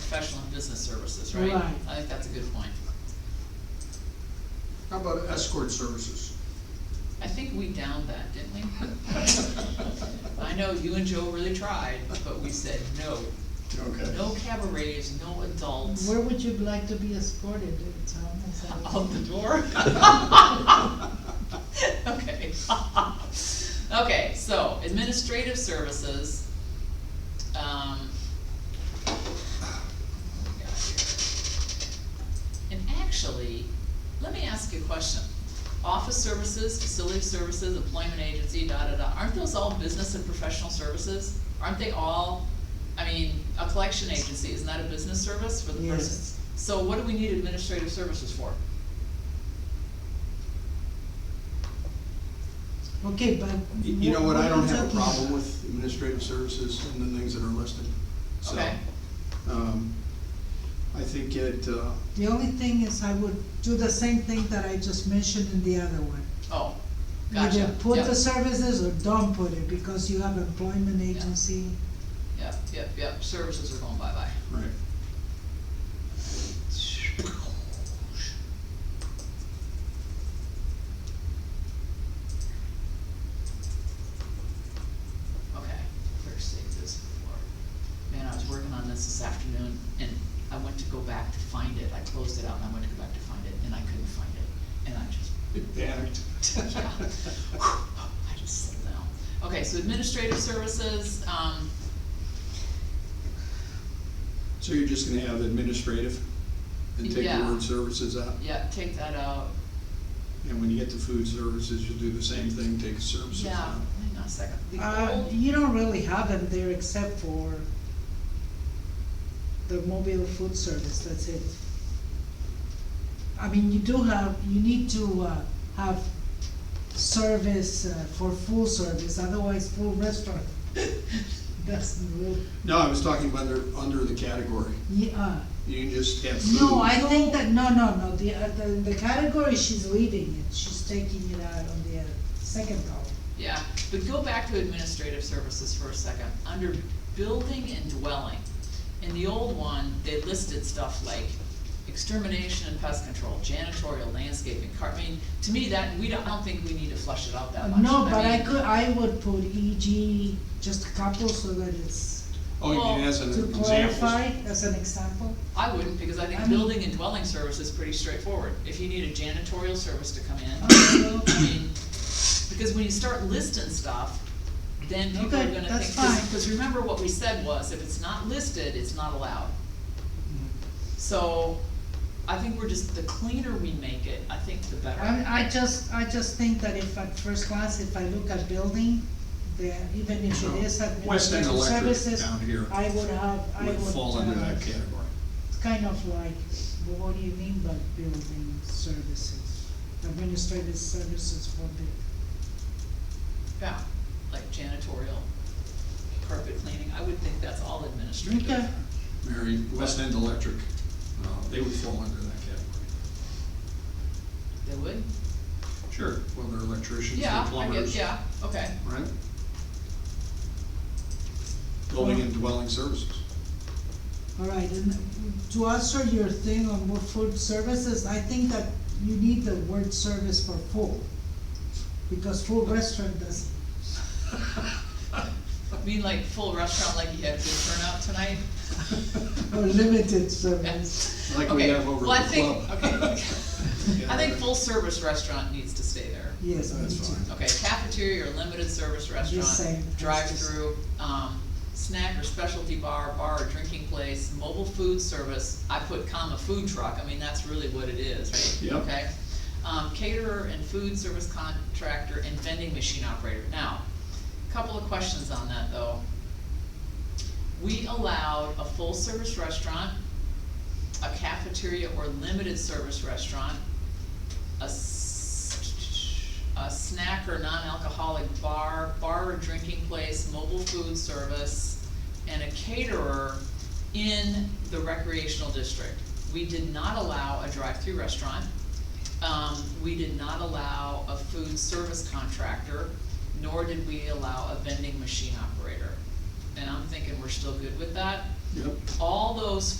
professional and business services, right? Right. I think that's a good point. How about escort services? I think we downed that, didn't we? I know you and Joe really tried, but we said no, Okay. no cabarets, no adults, Where would you like to be escorted, Tom? Is that what- out the door. Okay. Okay, so administrative services, um. what we got here? And actually, let me ask you a question. Office services, facility services, employment agency, da da da, aren't those all business and professional services? Aren't they all, I mean, a collection agency, isn't that a business service for the person? Yes. So what do we need administrative services for? Okay, but. You you know what, I don't have a talking problem about? with administrative services and the things that are listed, so. Okay. um, I think it, uh, The only thing is I would do the same thing that I just mentioned in the other one. Oh, gotcha, Either put Yep. the services or don't put it, because you have employment agency. Yep, yep, yep, services are going bye-bye. right, Okay, first save this before. Man, I was working on this this afternoon and I went to go back to find it. I closed it out and I went to go back to find it and I couldn't find it. And I just, it panicked. yeah. I just settled down. Okay, so administrative services, um, So you're just gonna have administrative and take the Yeah. word services out? yeah, take that out. And when you get to food services, you'll do the same thing, take the services Yeah, out. hang on a second. The Uh, old- you don't really have them there except for the mobile food service, that's it. I mean, you do have, you need to, uh, have service uh, for full service, otherwise full restaurant. Doesn't really, No, I was talking about under, under the category, yeah. you can just have food. uh, No, I think that, no, no, no, the, uh, the, the category, she's leaving it, she's taking it out on the uh, second column. Yeah, but go back to administrative services for a second. Under building and dwelling, in the old one, they listed stuff like extermination and pest control, janitorial, landscaping, car, I mean, to me, that, we don't, I don't think we need to flush it out that much. No, but I mean, could, I would put EG, just a couple, so that it's, Oh, you mean as an to example? clarify, as an example. I wouldn't, because I I think mean- building and dwelling service is pretty straightforward. If you need a janitorial service to come in, Also, I mean, because when you start listing stuff, then people are Okay, gonna that's think, cause, fine. 'cause remember what we said was, if it's not listed, it's not allowed. So, I think we're just, the cleaner we make it, I think the better. I, I just, I just think that if at first glance, if I look at building, there, even if it is West End administrative Electric services, down here I would have, I would. would fall under uh, that category. It's kind of like, well, what do you mean by building services? Administrative services for the, Yeah, like janitorial, carpet cleaning, I would think that's all administrative. Okay. Mary, West End Electric, uh, they would fall under that category. They would? Sure. Well, they're electricians, they're Yeah, I guess, plumbers, yeah, okay, right? Building and dwelling services. all right, and to answer your thing on what food services, I think that you need the word service for full. Because full restaurant does, I mean like full restaurant, like you had good turnout tonight? or limited Yeah. service. Like we Okay, have over well, I at the think- club. okay. Yeah. I think full service restaurant needs to stay there. Yes, me That's too. fine. Okay, cafeteria or limited service restaurant, same, that's drive-through, um, snack or specialty bar, bar or drinking place, mobile food service, I put comma food truck, I mean, that's really what it is, right? Yep. Okay, um, caterer and food service contractor and vending machine operator. Now, couple of questions on that though. We allowed a full-service restaurant, a cafeteria or limited service restaurant, a s- a snack or non-alcoholic bar, bar or drinking place, mobile food service, and a caterer in the recreational district. We did not allow a drive-through restaurant. Um, we did not allow a food service contractor, nor did we allow a vending machine operator. And I'm thinking we're still good with that. Yep. All those